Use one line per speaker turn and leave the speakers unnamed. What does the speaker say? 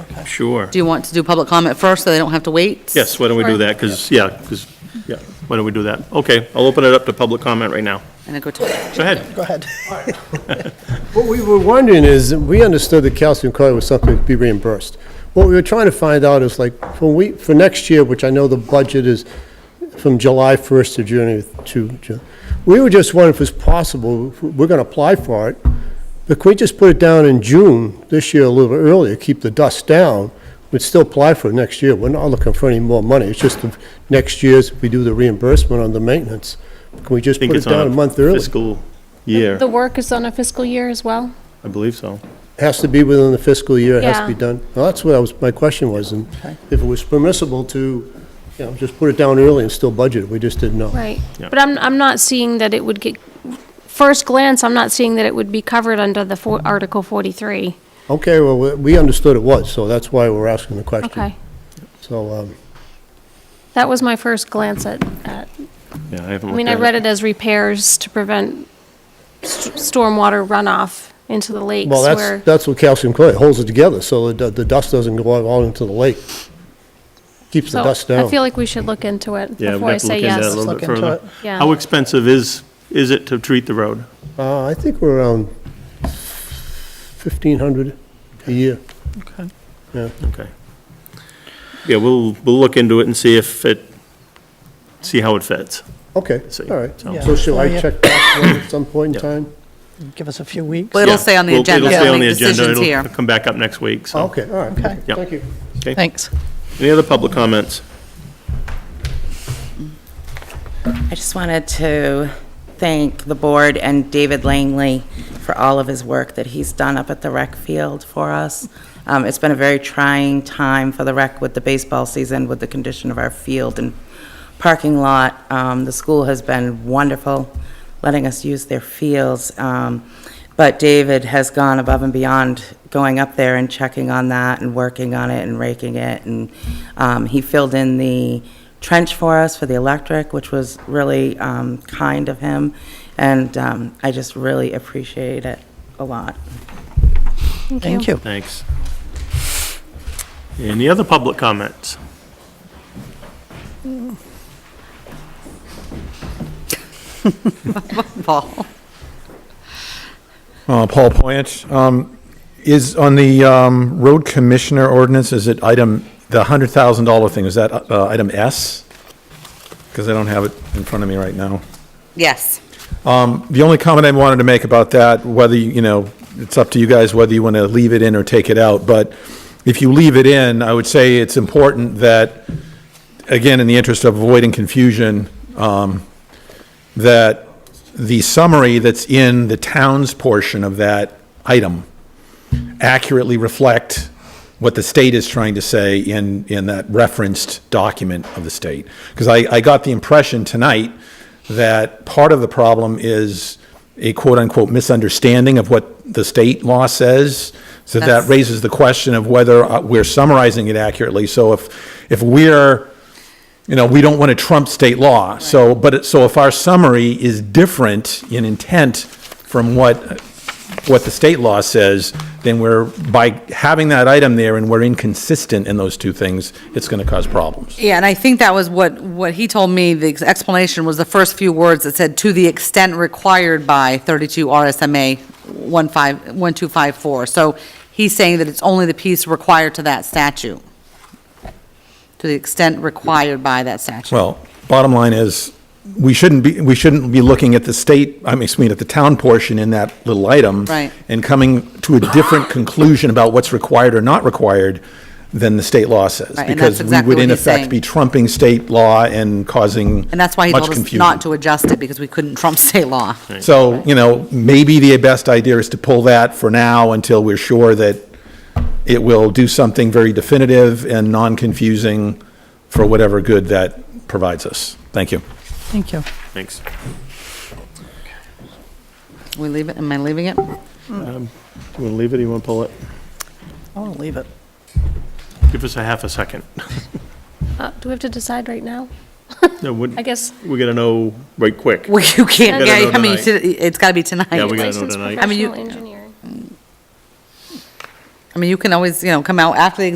Sure.
Do you want to do public comment first, so they don't have to wait?
Yes, why don't we do
Sure.
that? Because, yeah, 'cause- yeah, why don't we do that? Okay, I'll open it up to public comment right now.
And then go to,
Go ahead.
Go ahead.
What we were wondering is, we understood that calcium chloride was something to be reimbursed. What we were trying to find out is like, for we, for next year, which I know the budget is from July 1st to June, to June, we were just wondering if it's possible, if we're going to apply for it, but could we just put it down in June this year a little bit earlier, keep the dust down? We'd still apply for it next year. We're not looking for any more money. It's just the next year's, we do the reimbursement on the maintenance. Can we
I
just
think
put it
it's on
down a month early?
Fiscal year,
The work is on a fiscal year as well?
I believe so.
Has to be within the fiscal year, it has to be
Yeah.
done. Well, that's what I was, my question was, and if it was permissible to, you know, just put it down early and still budget, it, we just didn't know.
Right.
Yeah.
But I'm, I'm not seeing that it would get, first glance, I'm not seeing that it would be covered under the for- Article 43.
Okay, well, we- we understood it was, so that's why we're asking the question.
Okay.
So, um,
That was my first glance at, at,
Yeah, I haven't
I
looked
mean, I
at
read it as repairs to prevent st- stormwater runoff into the lakes
well,
where.
that's, that's what calcium chloride, holds it together, so the, the dust doesn't go out all into the lake. Keeps the
So
dust down.
I feel like we should look into it
Yeah,
before I
we'd have to
say
look into that a
yes.
little
Let's
bit
look into
further.
it. Yeah.
How expensive is, is it to treat the road?
Uh, I think we're around 1,500 a year.
Okay. Yeah, we'll, we'll look into it and see if it, see how it fits.
Okay,
See.
all right.
Yeah.
So shall
Yeah.
I check back at some point in time?
Give us a few weeks.
but it'll
Yeah,
stay on the
we'll-
agenda,
It'll stay
we'll
on
make
the agenda.
decisions here.
It'll come back up next week, so.
Okay, all right.
Okay.
Yeah.
Thank you.
Thanks.
Any other public comments?
I just wanted to thank the board and David Langley for all of his work that he's done up at the rec field for us. Um, It's been a very trying time for the rec with the baseball season, with the condition of our field and parking lot. Um, The school has been wonderful, letting us use their fields. Um, But David has gone above and beyond going up there and checking on that and working on it and raking it. And um, he filled in the trench for us for the electric, which was really um, kind of him. And um, I just really appreciate it a lot.
Thank you.
Thanks. Any other public comments?
Paul,
Uh, Paul Poyet, um, is on the, um, road commissioner ordinance, is it item, the hundred thousand dollar thing, is that, uh, item S? Because I don't have it in front of me right now.
yes.
The only comment I wanted to make about that, whether, you you know, it's up to you guys whether you want to leave it in or take it out, but if you leave it in, I would say it's important that, again, in the interest of avoiding confusion, um, that the summary that's in the town's portion of that item accurately reflect what the state is trying to say in, in that referenced document of the state. Because I, I got the impression tonight that part of the problem is a quote-unquote misunderstanding of what the state law says. So that
That's-
raises the question of whether uh, we're summarizing it accurately. So if, if we're, you know, we don't want to trump state law. So, but, it- so if our summary is different in intent from what, what the state law says, then we're, by having that item there and we're inconsistent in those two things, it's going to cause problems.
Yeah, and I think that was what, what he told me, the explanation was the first few words that said, "To the extent required by 32 RSMA 15 1254." So he's saying that it's only the piece required to that statute, to the extent required by that statute.
Well, bottom line is, we shouldn't be, we shouldn't be looking at the state, I mean, excuse me, at the town portion in that little item.
Right.
And coming to a different conclusion about what's required or not required than the state law says.
Right, and that's exactly
Because we
what
would in
he's saying.
effect be trumping state law and causing
And that's why he
much
told us
confusion.
not to adjust it, because we couldn't trump state law.
So, you know, maybe the best idea is to pull that for now until we're sure that it will do something very definitive and non-confusing for whatever good that provides us. Thank you.
Thank you.
Thanks.
We leave it, am I leaving it?
You want to leave it, or you want to pull it?
I want to leave it.
Give us a half a second.
Uh, Do we have to decide right now?
No, we-
I guess
We gotta know right quick.
Well, you can't,
We gotta
yeah,
know
I mean,
tonight.
it's gotta be tonight.
Yeah, we gotta know
licensed
tonight.
I mean, you-
professional engineer.
I mean, you can always, you know, come out after the